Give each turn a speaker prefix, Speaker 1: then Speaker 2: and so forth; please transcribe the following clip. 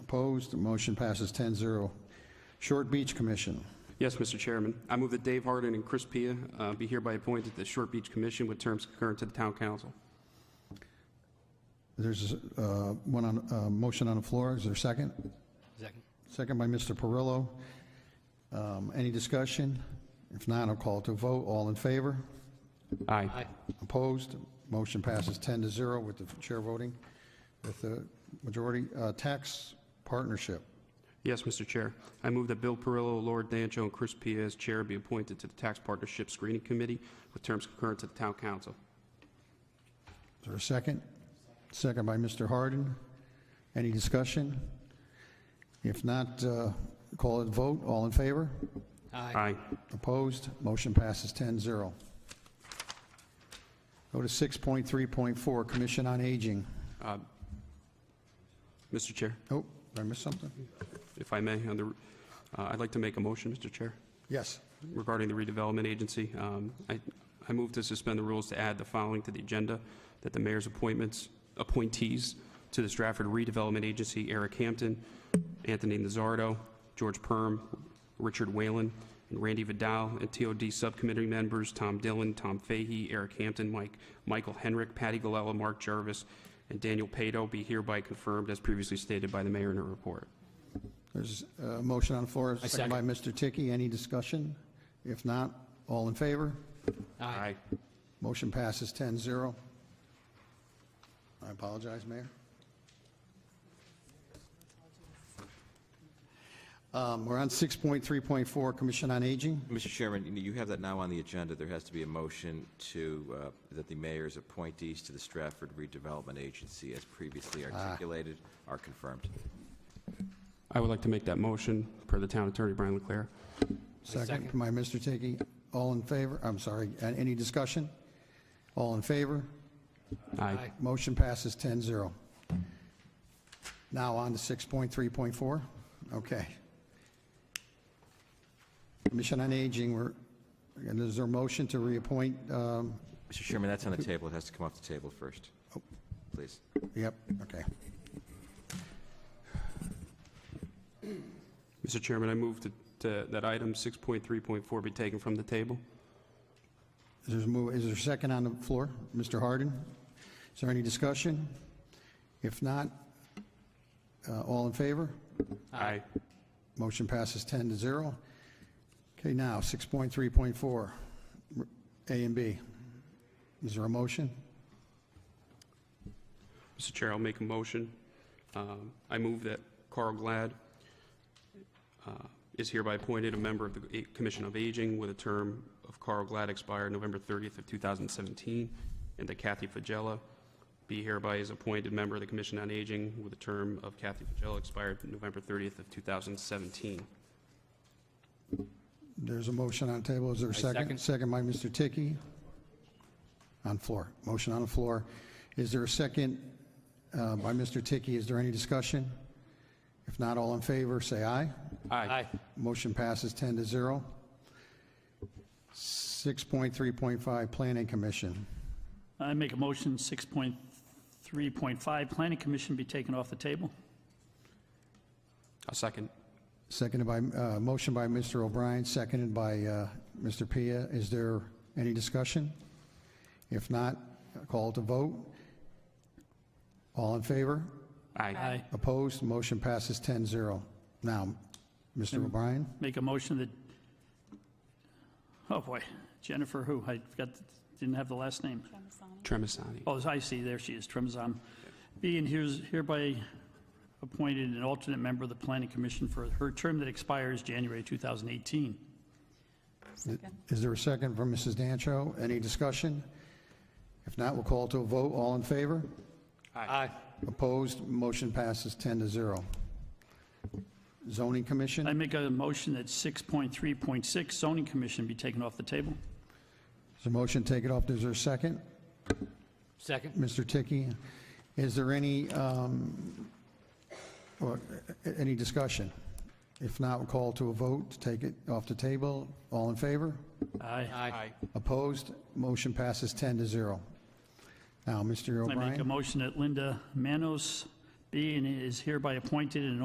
Speaker 1: Opposed? The motion passes 10-0. Short Beach Commission.
Speaker 2: Yes, Mr. Chairman. I move that Dave Harden and Chris Pia uh, be hereby appointed to the Short Beach Commission with terms concurrent to the Town Council.
Speaker 1: There's uh, one on, uh, motion on the floor. Is there a second?
Speaker 3: Second.
Speaker 1: Second by Mr. Perillo. Um, Any discussion? If not, I'll call to vote. All in favor?
Speaker 2: Aye.
Speaker 1: Opposed? Motion passes 10 to 0 with the chair voting with the majority. Uh, Tax Partnership.
Speaker 2: Yes, Mr. Chair. I move that Bill Perillo, Lord Dancho, and Chris Pia as chair be appointed to the Tax Partnership Screening Committee with terms concurrent to the Town Council.
Speaker 1: Is there a second? Second by Mr. Harden. Any discussion? If not, uh, call it vote. All in favor?
Speaker 3: Aye.
Speaker 2: Aye.
Speaker 1: Opposed? Motion passes 10-0. Go to 6.3.4, Commission on Aging.
Speaker 2: Mr. Chair,
Speaker 1: Oh, did I miss something?
Speaker 2: if I may, on the, uh, I'd like to make a motion, Mr. Chair.
Speaker 1: Yes.
Speaker 2: regarding the redevelopment agency. Um, I I move to suspend the rules to add the following to the agenda, that the mayor's appointments, appointees to the Stratford Redevelopment Agency, Eric Hampton, Anthony Nazardo, George Perm, Richard Whalen, and Randy Vidal, and TOD Subcommittee members Tom Dillon, Tom Fahey, Eric Hampton, Mike, Michael Henrick, Patty Galella, Mark Jarvis, and Daniel Pato be hereby confirmed as previously stated by the mayor in her report.
Speaker 1: There's a motion on the floor, second by Mr. Tiki. Any discussion? If not, all in favor?
Speaker 2: Aye.
Speaker 1: Motion passes 10-0. I apologize, Mayor. Um, We're on 6.3.4, Commission on Aging.
Speaker 4: Mr. Chairman, you- you have that now on the agenda. There has to be a motion to, uh, that the mayor's appointees to the Stratford Redevelopment Agency, as previously articulated, are confirmed.
Speaker 2: I would like to make that motion per the town attorney, Brian Leclerc.
Speaker 1: Second by Mr. Tiki. All in favor? I'm sorry, a- any discussion? All in favor?
Speaker 2: Aye.
Speaker 1: Motion passes 10-0. Now on to 6.3.4. Okay. Commission on Aging, we're, and is there a motion to reappoint? um,
Speaker 4: Mr. Chairman, that's on the table. It has to come off the table first. Please.
Speaker 1: Yep, okay.
Speaker 2: Mr. Chairman, I move to- to- that item 6.3.4 be taken from the table.
Speaker 1: Is there a move- is there a second on the floor? Mr. Harden? Is there any discussion? If not, uh, all in favor?
Speaker 2: Aye.
Speaker 1: Motion passes 10 to 0. Okay, now, 6.3.4, r- A and B. Is there a motion?
Speaker 2: Mr. Chair, I'll make a motion. Um, I move that Carl Glad uh, is hereby appointed a member of the A- Commission of Aging with a term of Carl Glad expired November 30th of 2017, and that Kathy Fagella be hereby is appointed member of the Commission on Aging with a term of Kathy Fagella expired November 30th of 2017.
Speaker 1: There's a motion on the table, is there a second?
Speaker 3: second.
Speaker 1: Second by Mr. Tiki. On floor, motion on the floor. Is there a second uh, by Mr. Tiki? Is there any discussion? If not, all in favor, say aye.
Speaker 3: Aye.
Speaker 1: Motion passes 10 to 0. 6.3.5, Planning Commission.
Speaker 5: I make a motion, 6.3.5, Planning Commission be taken off the table.
Speaker 2: A second.
Speaker 1: Seconded by, uh, motion by Mr. O'Brien, seconded by uh, Mr. Pia. Is there any discussion? If not, call to vote. All in favor?
Speaker 2: Aye.
Speaker 1: Opposed? Motion passes 10-0. Now, Mr. O'Brien?
Speaker 5: Make a motion that, oh boy, Jennifer who? I forgot, didn't have the last name.
Speaker 2: Tremisani.
Speaker 5: Oh, I see, there she is, Tremzam. Being here's hereby appointed an alternate member of the Planning Commission for her term that expires January 2018.
Speaker 1: Is there a second from Mrs. Dancho? Any discussion? If not, we'll call to a vote. All in favor?
Speaker 3: Aye.
Speaker 1: Opposed? Motion passes 10-0. Zoning Commission?
Speaker 5: I make a motion that 6.3.6 zoning commission be taken off the table.
Speaker 1: Is there a motion to take it off? Is there a second?
Speaker 3: Second.
Speaker 1: Mr. Tiki, is there any, um, or, uh, any discussion? If not, we'll call to a vote to take it off the table. All in favor?
Speaker 5: Aye.
Speaker 3: Aye.
Speaker 1: Opposed? Motion passes 10 to 0. Now, Mr.
Speaker 5: I make a
Speaker 1: O'Brien?
Speaker 5: motion that Linda Manos be and is hereby appointed an